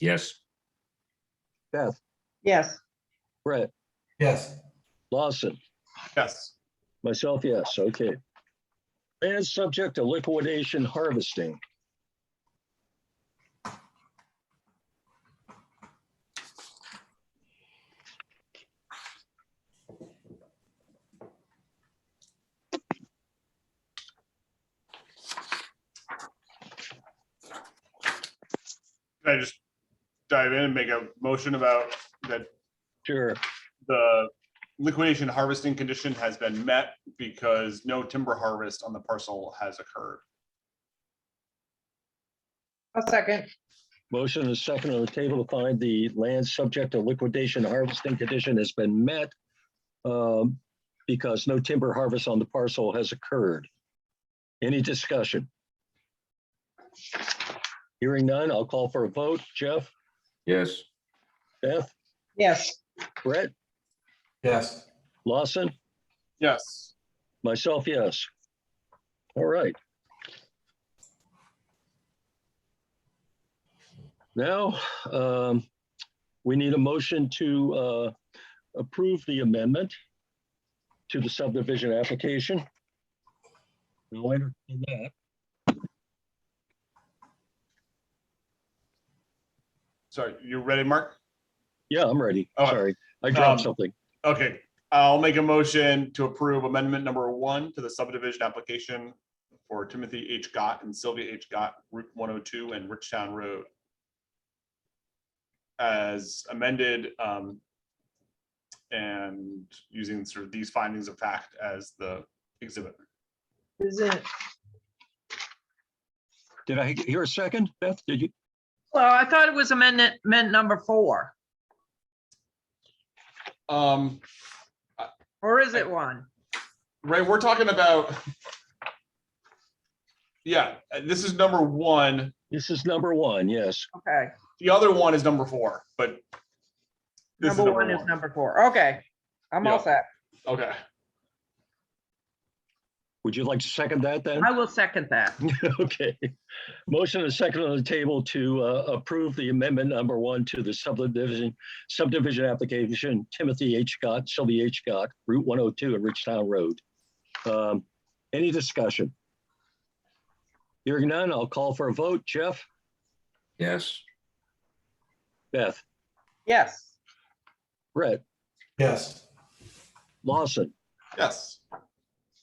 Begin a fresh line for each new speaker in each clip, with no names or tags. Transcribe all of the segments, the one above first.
Yes.
Beth,
Yes,
Brett,
Yes.
Lawson,
Yes.
myself, yes, okay. And subject to liquidation harvesting.
Can I just dive in and make a motion about that
Sure,
the liquidation harvesting condition has been met because no timber harvest on the parcel has occurred?
a second.
motion is second on the table to find the land subject to liquidation harvesting condition has been met. um, Because no timber harvest on the parcel has occurred. Any discussion? Hearing none, I'll call for a vote. Jeff,
Yes.
Beth,
Yes,
Brett,
Yes.
Lawson?
Yes,
Myself, yes. All right. Now, um, we need a motion to uh, approve the amendment to the subdivision application. We'll entertain that.
sorry, you ready, Mark?
Yeah, I'm ready.
Oh,
Sorry, I dropped
um,
something.
Okay, I'll make a motion to approve amendment number one to the subdivision application for Timothy H. Gott and Sylvia H. Gott, Route one oh two and Richtown Road. As amended, um, and using sort of these findings of fact as the exhibit.
is it?
Did I hear a second? Beth, did you?
Well, I thought it was amendment, meant number four,
Um,
or is it one?
right, we're talking about. Yeah, uh, this is number one.
This is number one, yes.
Okay,
The other one is number four, but. this
number one is number four. Okay, I'm all
Yeah.
set.
Okay,
Would you like to second that then?
I will second that.
Okay. Motion and second on the table to uh, approve the amendment number one to the subdivision, subdivision application, Timothy H. Scott, Sylvia H. Scott, Route 102 and Richtown Road. Um, Any discussion? Hearing none, I'll call for a vote. Jeff,
Yes.
Beth,
Yes,
Brett,
Yes.
Lawson,
yes.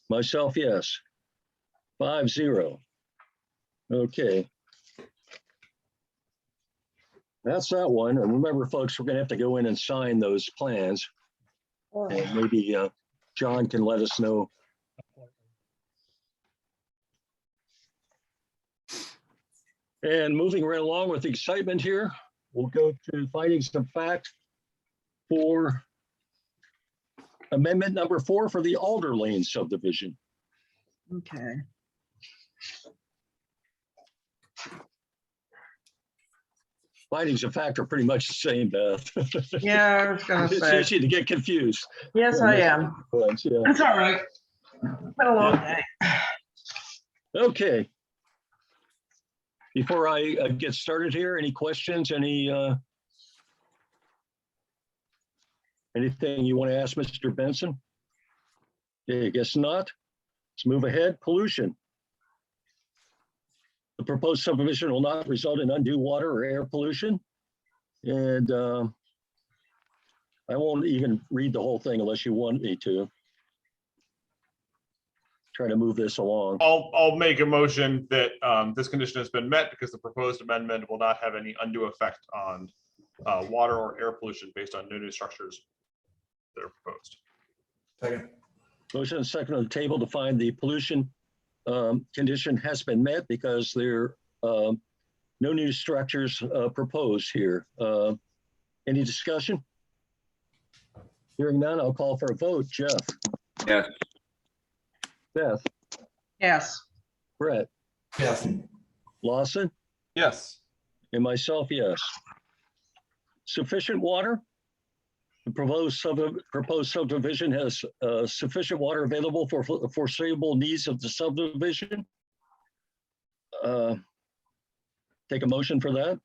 myself, yes. Five zero. Okay. That's that one. And remember, folks, we're gonna have to go in and sign those plans. And maybe uh, John can let us know. And moving right along with the excitement here, we'll go to findings of fact for amendment number four for the Alder Lane subdivision.
okay.
Findings of fact are pretty much the same, Beth.
Yeah, I was gonna
It's
say,
easy to get confused.
yes, I am.
But, yeah.
That's all right. Been a long day.
Okay. Before I uh, get started here, any questions, any, uh, anything you want to ask Mr. Benson? Okay, I guess not. Let's move ahead. Pollution. The proposed subdivision will not result in undue water or air pollution. And, um, I won't even read the whole thing unless you want me to. Try to move this along.
I'll, I'll make a motion that um, this condition has been met because the proposed amendment will not have any undue effect on uh, water or air pollution based on no new structures that are proposed.
Second.
Motion and second on the table to find the pollution um, condition has been met because there um, no new structures uh, proposed here. Uh, Any discussion? Hearing none, I'll call for a vote. Jeff?
Yes.
Beth?
Yes,
Brett?
Yes.
Lawson?
Yes.
And myself, yes. Sufficient water? The proposed sub, proposed subdivision has uh, sufficient water available for fo- foreseeable needs of the subdivision? Uh, Take a motion for that?